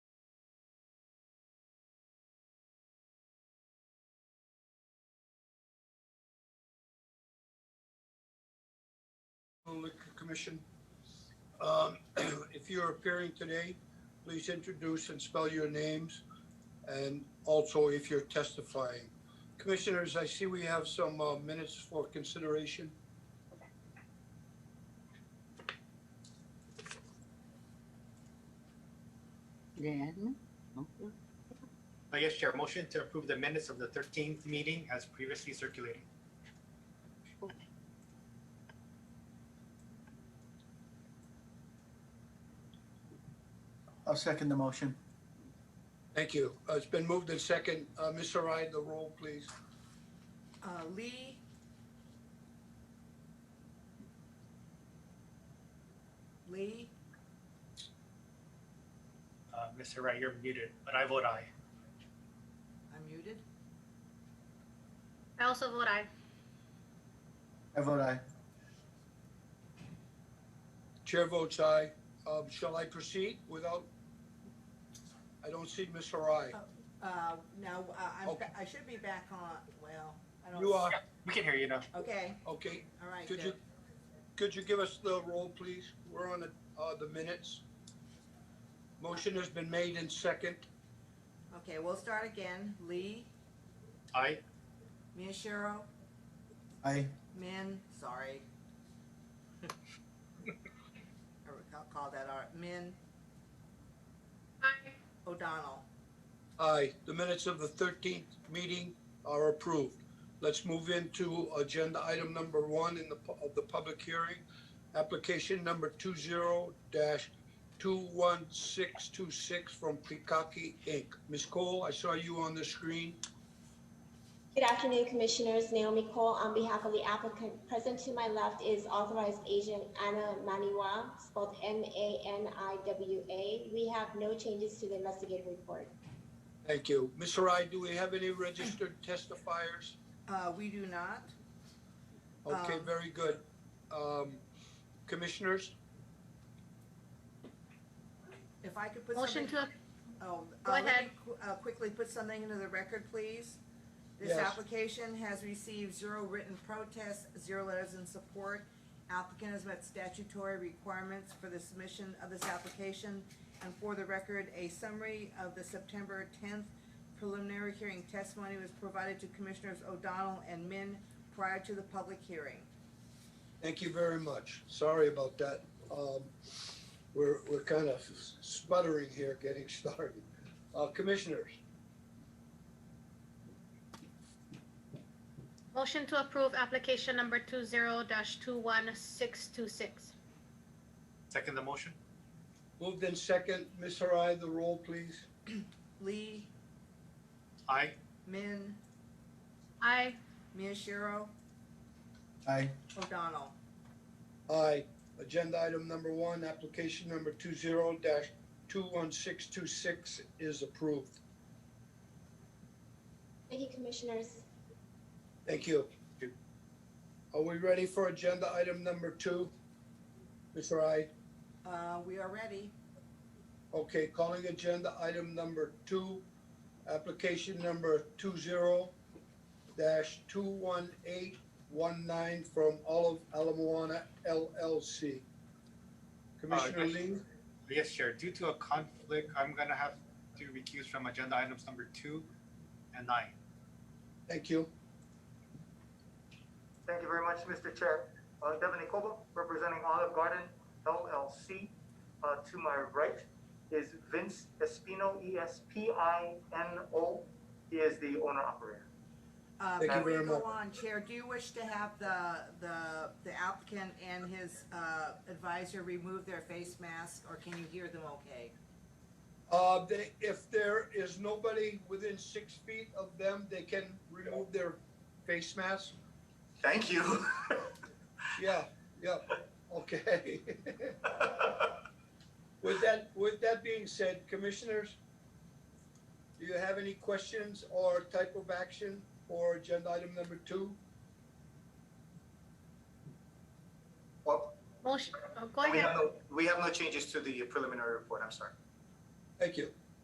Liquor Commission. Um, If you're appearing today, please introduce and spell your names, and also if you're testifying. Commissioners, I see we have some uh, minutes for consideration. The admin? Okay. Uh, Yes, Chair, motion to approve the minutes of the thirteenth meeting as previously circulated. I'll second the motion. Thank you. Uh, It's been moved in second. Uh, Ms. Sarai, the roll, please. Uh, Lee, Lee, Uh, Mr. Wright, you're muted, but I vote aye. I'm muted. I also vote aye. I vote aye. Chair votes aye. Um, Shall I proceed without? I don't see Ms. Sarai. Uh, now, uh, I'm, Okay. I should be back on, well, I don't. You are, We can hear you now. Okay, okay. all right. Could good. you, could you give us the roll, please? We're on the, uh, the minutes. Motion has been made in second. Okay, we'll start again. Lee, Aye. Miyashiro, Aye. Min, sorry. I recall- call that our, Min Aye. O'Donnell. Aye, the minutes of the thirteenth meeting are approved. Let's move into agenda item number one in the, pu- of the public hearing. Application number two zero dash two one six two six from Pikaki Inc. Ms. Cole, I saw you on the screen. Good afternoon, Commissioners. Naomi Cole on behalf of the applicant. Present to my left is authorized agent Anna Maniwa, spelled M-A-N-I-W-A. We have no changes to the investigative report. Thank you. Ms. Sarai, do we have any registered testifiers? Uh, we do not. Okay, Um, very good. Um, Commissioners, If I could put something. Motion to, Oh, Go uh, let me ahead. qu- uh, Quickly put something into the record, please. This Yes. application has received zero written protests, zero letters in support. Applicant has met statutory requirements for the submission of this application. And for the record, a summary of the September tenth preliminary hearing testimony was provided to Commissioners O'Donnell and Min prior to the public hearing. thank you very much. Sorry about that. Um, We're, we're kind of sputtering here getting started. Uh, Commissioners, motion to approve application number two zero dash two one six two six. Second the motion? moved in second. Ms. Harai, the roll, please. Lee, Aye. Min, Aye. Miyashiro, Aye. O'Donnell. Aye. Agenda item number one, application number two zero dash two one six two six is approved. Thank you, Commissioners. Thank you. Are we ready for agenda item number two? Ms. Harai? Uh, we are ready. Okay, calling agenda item number two, application number two zero dash two one eight one nine from Olive Alamoana LLC. Commissioner yes. Lee, Yes, Chair, due to a conflict, I'm gonna have to recuse from agenda items number two and nine. thank you. Thank you very much, Mr. Chair. Uh, Devin Nikoba, representing Olive Garden LLC. Uh, To my right is Vince Espino, E S P I N O. He is the owner operator. Uh, Thank you Before you very go much. on, Chair, do you wish to have the, the, the applicant and his uh, advisor remove their face mask, or can you hear them okay? Uh, they, if there is nobody within six feet of them, they can remove their face mask? Thank you. Yeah, yeah, okay. With that, with that being said, commissioners, do you have any questions or type of action for agenda item number two? Well, Motion, oh, go we ahead. have no, we have no changes to the preliminary report, I'm sorry. Thank you.